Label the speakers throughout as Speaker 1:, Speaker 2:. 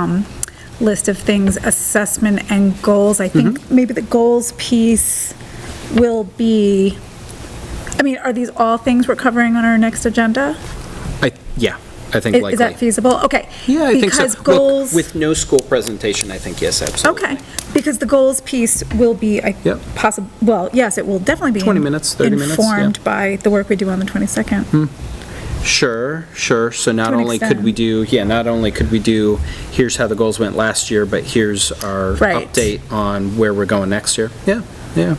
Speaker 1: um, list of things, assessment and goals. I
Speaker 2: Mm-hmm.
Speaker 1: think maybe the goals piece will be, I mean, are these all things we're covering on our next agenda?
Speaker 2: I, yeah, I think
Speaker 1: Is
Speaker 2: likely.
Speaker 1: is that feasible? Okay.
Speaker 2: Yeah, I think so.
Speaker 1: Because
Speaker 2: Look,
Speaker 1: goals.
Speaker 2: With no school presentation, I think, yes, absolutely.
Speaker 1: Okay, because the goals piece will be, I
Speaker 2: Yep.
Speaker 1: possible, well, yes, it will definitely be.
Speaker 2: 20 minutes, 30 minutes, yeah. Hmm.
Speaker 1: Informed by the work we do on the 22nd.
Speaker 2: Sure, sure. So not
Speaker 1: To an
Speaker 2: only could we
Speaker 1: extent.
Speaker 2: do, yeah, not only could we do, here's how the goals went last year, but here's our
Speaker 1: Right.
Speaker 2: update on where we're going next year. Yeah, yeah.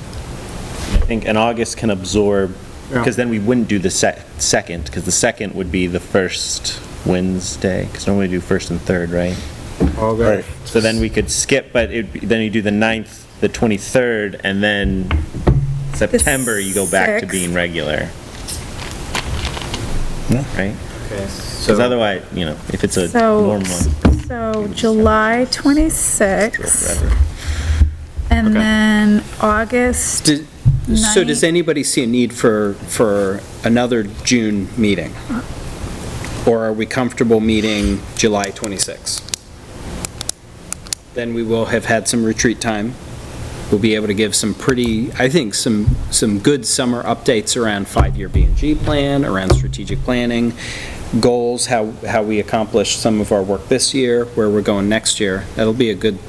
Speaker 3: I think, and August can absorb,
Speaker 2: Yeah.
Speaker 3: because then we wouldn't do the sec- second, because the second would be the first Wednesday, because normally we do first and third, right?
Speaker 2: All good.
Speaker 3: So then we could skip, but it, then you do the ninth, the 23rd, and then September, you go back to
Speaker 1: sixth.
Speaker 3: being regular. Right? Because
Speaker 2: So
Speaker 3: otherwise, you know, if it's a
Speaker 1: So,
Speaker 3: normal.
Speaker 1: so July 26th,
Speaker 3: whatever.
Speaker 1: and
Speaker 2: Okay.
Speaker 1: then August,
Speaker 2: did- so does
Speaker 1: Nine-
Speaker 2: anybody see a need for, for another June meeting? Or are we comfortable meeting July 26? Then we will have had some retreat time. We'll be able to give some pretty, I think, some, some good summer updates around five-year B and G plan, around strategic planning, goals, how, how we accomplished some of our work this year, where we're going next year. That'll be a good,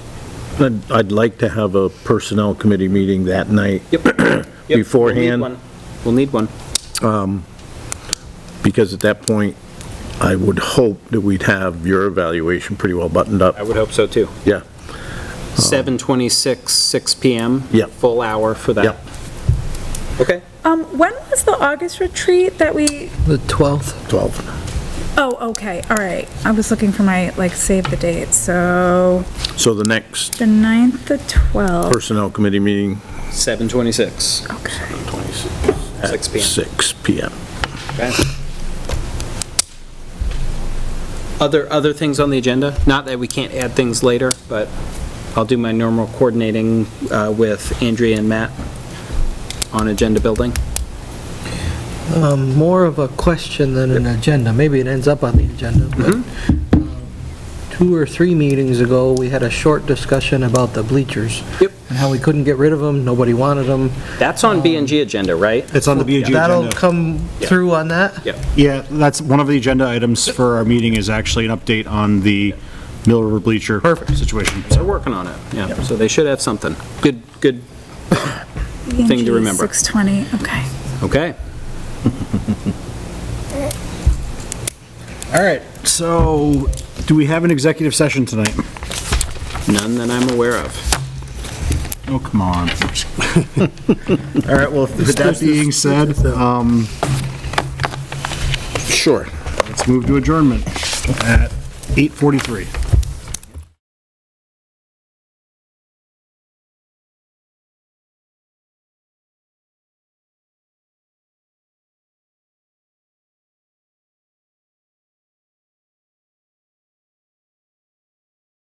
Speaker 4: I'd, I'd like to have a personnel committee meeting that night
Speaker 2: yep. Yep, we'll need
Speaker 4: Beforehand?
Speaker 2: one. We'll need one.
Speaker 4: because at that point, I would hope that we'd have your evaluation pretty well buttoned up.
Speaker 2: would hope so, too.
Speaker 4: Yeah.
Speaker 2: 7:26, 6 PM?
Speaker 4: Yep.
Speaker 2: Full hour for that?
Speaker 4: Yep.
Speaker 2: Okay.
Speaker 1: um, when was the August retreat that we,
Speaker 5: The 12th?
Speaker 4: 12.
Speaker 1: oh, okay, all right. I was looking for my, like, save the date, so
Speaker 4: So the next
Speaker 1: the 9th, the 12th,
Speaker 4: personnel committee meeting,
Speaker 2: 7:26,
Speaker 1: okay.
Speaker 2: 6 PM.
Speaker 4: 6 PM.
Speaker 2: Okay. Other, other things on the agenda? Not that we can't add things later, but I'll do my normal coordinating uh, with Andrea and Matt on agenda building.
Speaker 5: Um, More of a question than an agenda. Maybe it ends up on the agenda, but
Speaker 6: Mm-hmm.
Speaker 5: uh, two or three meetings ago, we had a short discussion about the bleachers.
Speaker 2: Yep.
Speaker 5: And how we couldn't get rid of them, nobody wanted them.
Speaker 2: That's on B and G agenda, right?
Speaker 6: It's on the BG
Speaker 5: That'll
Speaker 6: agenda.
Speaker 5: come
Speaker 2: Yeah.
Speaker 5: through on that?
Speaker 2: Yep.
Speaker 6: Yeah, that's, one of the agenda items for our meeting is actually an update on the Mill River Bleacher situation.
Speaker 2: They're working on it, yeah. So they should have something. Good, good, Thing to
Speaker 1: ENG
Speaker 2: remember.
Speaker 1: 6:20, okay.
Speaker 2: okay.
Speaker 6: All right, so do we have an executive session tonight?
Speaker 2: None that I'm aware of.
Speaker 6: Oh, come on.
Speaker 4: All right, well,
Speaker 6: With that being said, um,
Speaker 4: Sure.
Speaker 6: let's move to adjournment at 8:43.